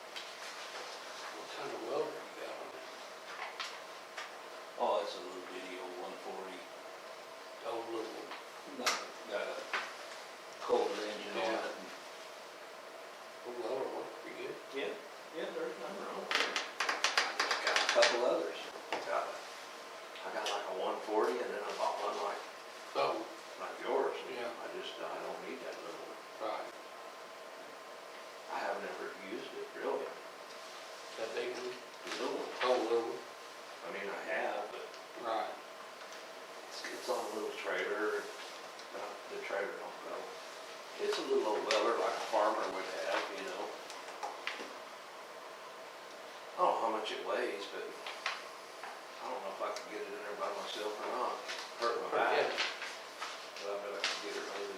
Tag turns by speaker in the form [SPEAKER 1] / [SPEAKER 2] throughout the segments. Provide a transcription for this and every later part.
[SPEAKER 1] Oh,
[SPEAKER 2] oh,
[SPEAKER 1] couple others. Got a- I got like a one forty and then I bought one like,
[SPEAKER 2] Oh,
[SPEAKER 1] like yours.
[SPEAKER 2] Yeah.
[SPEAKER 1] I just, I don't need that little one.
[SPEAKER 2] right,
[SPEAKER 1] I haven't ever used it really,
[SPEAKER 2] that big one,
[SPEAKER 1] the little one.
[SPEAKER 2] whole little, one.
[SPEAKER 1] I mean, I have, but
[SPEAKER 2] right,
[SPEAKER 1] it's, it's on a little trailer, uh, the trailer don't go. It's a little old weller like a farmer would have, you know? I don't know how much it weighs, but I don't know if I could get it in there by myself or not. Hurt my
[SPEAKER 2] yeah,
[SPEAKER 1] back, but I bet I could get it maybe,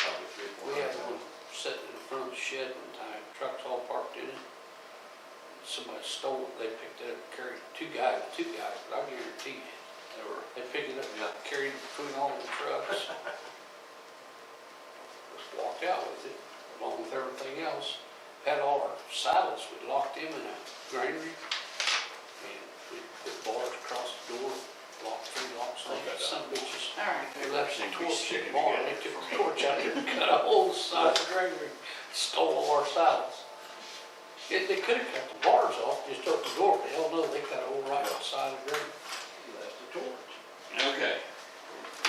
[SPEAKER 1] probably three, four
[SPEAKER 2] we had one
[SPEAKER 1] hundred pounds.
[SPEAKER 2] sitting in front of the shed one time, trucks all parked in it. Somebody stole it, they picked it up, carried, two guys, two guys, but I guarantee you,
[SPEAKER 1] They were,
[SPEAKER 2] they picked it up, and carried it between all the trucks. Just walked out with it, along with everything else, had all our saddles, we locked them in a granary, and we put bars across the door, locked three locks on it, some bitches.
[SPEAKER 3] All right.
[SPEAKER 2] They left some
[SPEAKER 4] Think we
[SPEAKER 2] torch in
[SPEAKER 4] stick it
[SPEAKER 2] the barn, they
[SPEAKER 4] together
[SPEAKER 2] took
[SPEAKER 4] for
[SPEAKER 2] the
[SPEAKER 4] me.
[SPEAKER 2] torch out there and cut a whole side of the granary, stole all our saddles. It, they could have cut the bars off, just opened the door, but hell no, they cut a whole right side of the granary.
[SPEAKER 1] you left the torch.
[SPEAKER 4] Okay.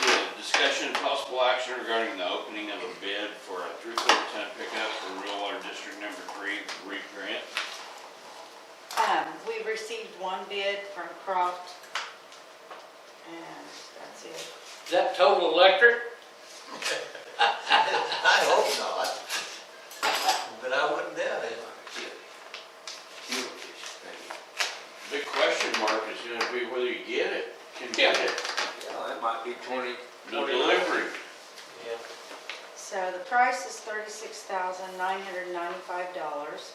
[SPEAKER 4] Yeah, discussion and possible action regarding the opening of a bid for a three-quarter ton pickup for rural water district number three, REAP grant.
[SPEAKER 3] Um, we received one bid from Croft. And that's it.
[SPEAKER 2] Is that total electric?
[SPEAKER 5] I hope not. But I wouldn't doubt it.
[SPEAKER 4] Big question mark is gonna be whether you get it, can get it,
[SPEAKER 1] Yeah, that might be twenty,
[SPEAKER 4] the
[SPEAKER 1] twenty.
[SPEAKER 4] delivery.
[SPEAKER 5] Yeah.
[SPEAKER 3] So the price is thirty-six thousand nine hundred and ninety-five dollars.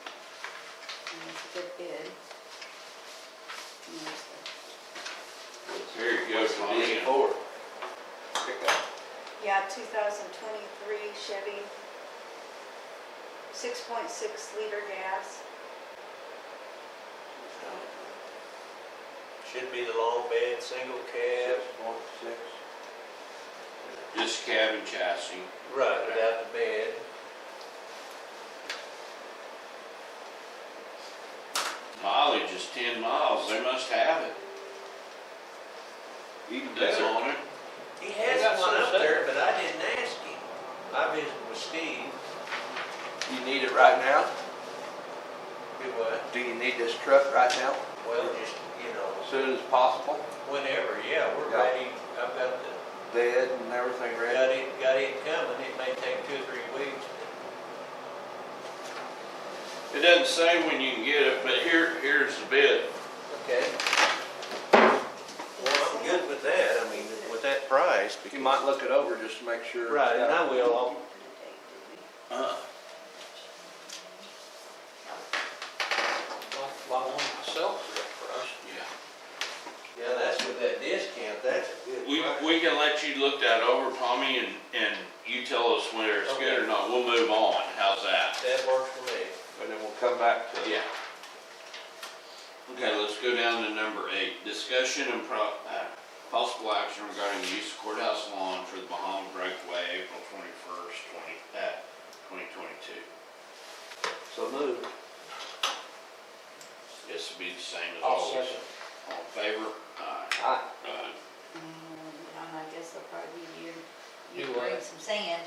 [SPEAKER 3] And it's a good bid. And there's the-
[SPEAKER 4] There you go, Tommy.
[SPEAKER 1] Big Ford. Pickup.
[SPEAKER 3] Yeah, two thousand twenty-three Chevy, six point six liter gas.
[SPEAKER 5] Should be the long bed, single
[SPEAKER 1] Six
[SPEAKER 5] cab.
[SPEAKER 1] point six.
[SPEAKER 4] Just cabin chassis.
[SPEAKER 5] Right, without the bed.
[SPEAKER 4] Mileage is ten miles, they must have it.
[SPEAKER 1] Even
[SPEAKER 4] That's
[SPEAKER 1] better.
[SPEAKER 4] on it.
[SPEAKER 5] He has
[SPEAKER 2] got
[SPEAKER 5] one
[SPEAKER 2] some
[SPEAKER 5] up
[SPEAKER 2] set.
[SPEAKER 5] there, but I didn't ask him. I visited with Steve.
[SPEAKER 1] You need it right now?
[SPEAKER 5] Do what?
[SPEAKER 1] Do you need this truck right now?
[SPEAKER 5] Well, just, you know,
[SPEAKER 1] As soon as possible?
[SPEAKER 5] whenever, yeah, we're
[SPEAKER 1] Yeah.
[SPEAKER 5] ready. I've got the,
[SPEAKER 1] Bed and everything
[SPEAKER 5] got
[SPEAKER 1] ready?
[SPEAKER 5] it, got it coming. It may take two or three weeks.
[SPEAKER 4] It doesn't say when you can get it, but here, here's the bid.
[SPEAKER 5] Okay. Well, I'm good with that. I mean, with that price.
[SPEAKER 1] You might look it over just to make sure.
[SPEAKER 5] Right, and I will. I'll
[SPEAKER 4] Uh,
[SPEAKER 2] Like, buy one myself for that price.
[SPEAKER 4] yeah.
[SPEAKER 5] Yeah, that's with that discount, that's a good
[SPEAKER 4] We,
[SPEAKER 5] price.
[SPEAKER 4] we can let you look that over, Tommy, and, and you tell us whether it's good or not. We'll move on. How's that?
[SPEAKER 5] That works for me.
[SPEAKER 1] And then we'll come back to.
[SPEAKER 4] Yeah. Okay, let's go down to number eight, discussion and pro, uh, possible action regarding the use of courthouse lawn for the Bahama breakaway, April twenty-first, twenty, uh, twenty twenty-two.
[SPEAKER 1] So move.
[SPEAKER 4] This will be the same as
[SPEAKER 2] I'll
[SPEAKER 4] always.
[SPEAKER 2] second.
[SPEAKER 4] All in favor? Aye.
[SPEAKER 1] Aye.
[SPEAKER 4] Aye.
[SPEAKER 3] And Um, I guess they'll probably be you,
[SPEAKER 2] Do
[SPEAKER 3] you
[SPEAKER 2] what?
[SPEAKER 3] bring some sand.